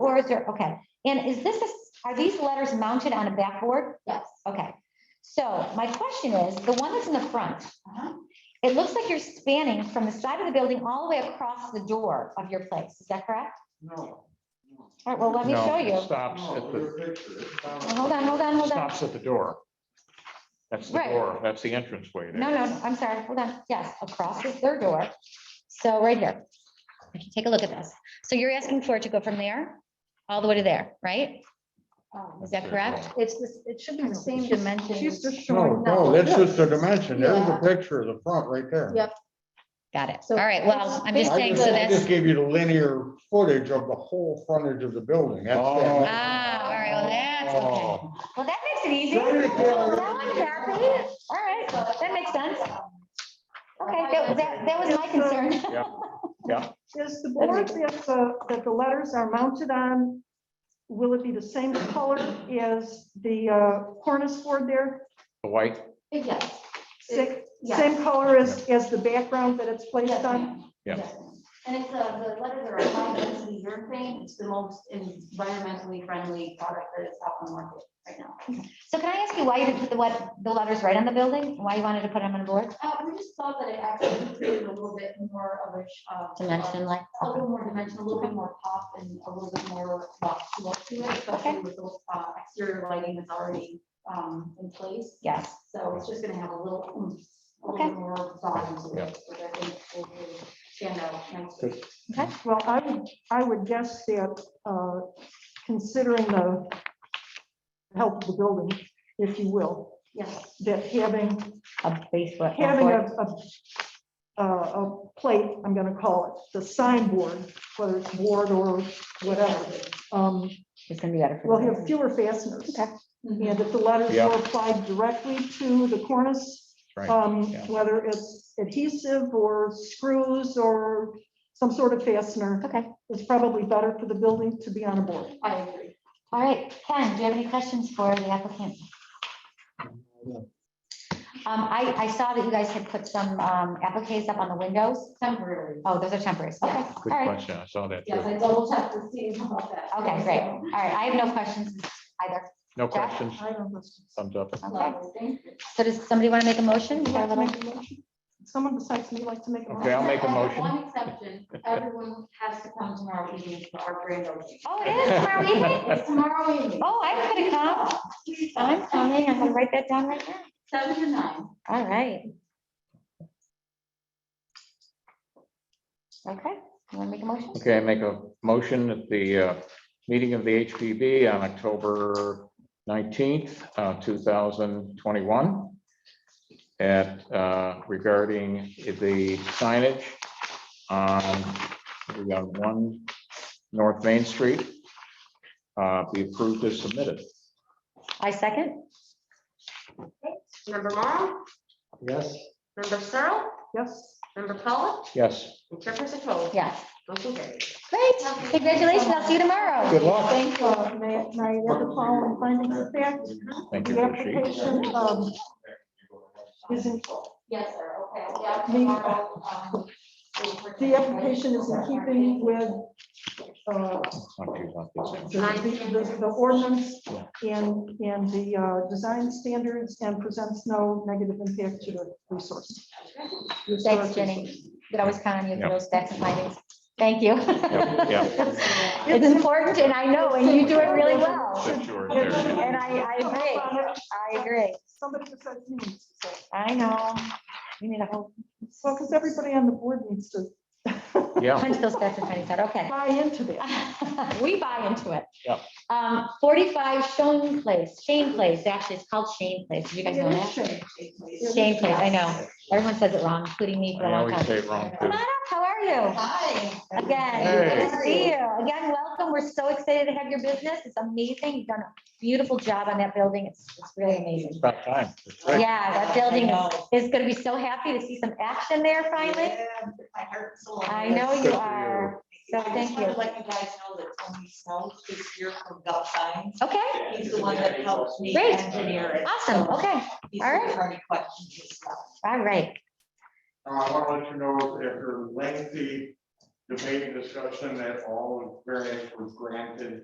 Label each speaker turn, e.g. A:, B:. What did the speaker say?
A: or is there, okay, and is this, a- are these letters mounted on a backboard?
B: Yes.
A: Okay, so my question is, the one that's in the front,
B: Uh-huh.
A: it looks like you're spanning from the side of the building all the way across the door of your place, is that correct?
C: No.
A: All right, well, let me
D: No,
A: show
D: it
A: you.
D: Stops at
C: No,
D: the,
C: your picture. it's not-
A: Well, Hold on, hold on, hold on.
D: stops at the door. That's the
A: Right.
D: door, that's the entrance way there.
A: No, no, I'm sorry, hold on. Yes, across is their door. So right here. Okay, Take a look at this. So you're asking for it to go from there all the way to there, right?
B: Um,
A: Is that correct?
B: It's this, it should be the same dimension.
E: She's just
C: No,
E: showing.
C: no, that's just a
E: a.
C: dimension. There's
B: Yeah.
C: a picture of the front right there.
E: Yeah.
A: Got it.
B: So
A: All right, well, I'm just
C: I
A: saying,
C: just,
A: so
C: I just
A: that's,
C: gave you the linear footage of the whole frontage of the building. That's
D: Oh.
C: that.
A: ah, all right, well, that's, okay.
D: Oh,
A: Well, that makes it easy.
C: Sorry, Taylor.
A: That one's happy. All right, that makes sense. Okay, that, that, that was my concern.
D: Yeah,
E: Is the board, if the, that the letters are mounted on, will it be the same color as the uh, cornice board there?
D: the white,
B: Yes.
E: Sick-
B: Yes.
E: Same color as, as the background that it's placed
B: Yes,
E: on?
B: ma'am.
D: Yeah.
B: Yes, ma'am. And it's, uh, the letters are high density urethane. It's the most environmentally friendly product that is out on the market right now.
A: So can I ask you why you didn't put the, what, the letters right on the building? Why you wanted to put them on the board?
B: Uh, we just thought that it actually created a little bit more of a, sh- uh,
A: Dimension like.
B: A little more dimension, a little bit more pop and a little bit more rock to look to it, especially with the uh, exterior lighting that's already, um, in place.
A: Yes.
B: So it's just gonna have a little, oomph, a
A: Okay.
B: little bit more volume to it, which I think will really stand out nicely.
E: Well, I would, I would guess that, uh, considering the health of the building, if you will,
B: Yes,
E: that having
A: A base what- a
E: having
A: board.
E: a, a, a a plate, I'm gonna call it, the signboard, whether it's board or whatever, um,
A: It's gonna be better. for
E: will
A: the-
E: have fewer fasteners.
A: Okay.
B: Mhm.
E: And if the letters
D: Yeah.
E: were applied directly to the cornice,
D: Right,
E: um,
D: yeah.
E: whether it's adhesive or screws or some sort of fastener,
A: Okay,
E: it's probably better for the building to be on a board.
B: I agree.
A: all right. Ken, do you have any questions for the applicant? Um, I, I saw that you guys had put some, um, appliques up on the windows.
B: Temporary.
A: Oh, those are temporary. Okay,
B: Yes.
A: all
D: good
A: right.
D: question, I saw that
B: Yes,
D: too.
B: I double checked to see about that.
A: Okay, great. All right, I have no questions either.
D: No
A: Jack?
D: questions,
E: I don't know.
D: thumbs up.
A: Okay,
B: So, thank you.
A: so does somebody want to make a motion?
E: Would
A: We
E: you
A: have
E: like
A: a
E: to
A: little-
E: make a motion? Someone besides me like to make a
D: Okay,
E: motion?
D: I'll make a
B: I have
D: motion.
B: One exception, everyone has to come tomorrow evening for our grand opening.
A: Oh, it is tomorrow evening?
B: It's tomorrow evening,
A: Oh, I'm gonna come. I'm coming. I'm gonna write that down right now.
B: seven to nine.
A: All right. Okay, you want to make a motion?
D: Okay, I make a motion at the uh, meeting of the HPB on October nineteenth, uh, two thousand twenty-one. At uh, regarding the signage on, we got one North Main Street. uh, Be approved as submitted.
A: I second.
F: Member Morrow,
A: Ah.
C: Yes.
F: member Searle,
E: Yes.
F: member Pollak,
D: Yes,
F: and chairperson Cole.
A: Yes.
F: Motion carried.
A: Great. Congratulations. I'll see you tomorrow.
D: good luck.
E: Thank you. Uh, May I- may I have the following findings of fact?
D: Thank you
E: The
D: for the sheet.
E: application um, is in,
B: Yes, sir, okay, yeah.
E: Me-
G: uh,
B: tomorrow, um, we'll-
E: the application is in keeping with uh,
D: Not too much,
E: the-
D: it's-
E: the the ordinance and, and the uh, design standards and presents no negative impact to the resource.
A: Thanks, Jenny. Could always count on you for
D: Yep.
A: those facts and findings. Thank you.
D: Yep, yep.
A: It's important and I know, and you do it really well.
D: That's yours there.
A: And I, I agree. I agree.
E: uh, Somebody besides me needs to say.
A: I know. We need a whole
E: Well, because everybody on the board needs to
D: Yeah,
A: punch those facts and findings out. Okay.
E: buy into that.
A: We buy into it.
D: Yep.
A: Um, forty-five Shane Place, Shane Place, actually, it's called Shane Place. Did you guys know
E: It is
A: that?
E: shame.
A: Shane Place, I know. Everyone says it wrong, including me for a
D: I
A: long
D: always
A: time.
D: say it wrong
A: Come
D: too.
A: on up, how are you?
B: Hi.
A: Again, good to
B: Hey.
A: see you. Again, welcome. We're so excited to have your business. It's amazing. You've done a beautiful job on that building. It's, it's really
D: It's
A: amazing.
D: about time. It's great.
A: Yeah, that building is, is gonna be so happy to see some action there finally.
B: My heart's a
A: I know you
D: Good for
A: are. So
G: I
A: thank
G: just want
A: you.
G: to let you guys know that Tony Snow is here from Gulf Signs.
A: Okay,
G: He's the one that helped me
A: Great.
G: engineer it.
A: awesome.
G: so
A: Okay,
G: He's
A: All right.
G: answered any questions and stuff.
A: all right.
C: Uh, I want to let you know after lengthy debate and discussion that all variance was granted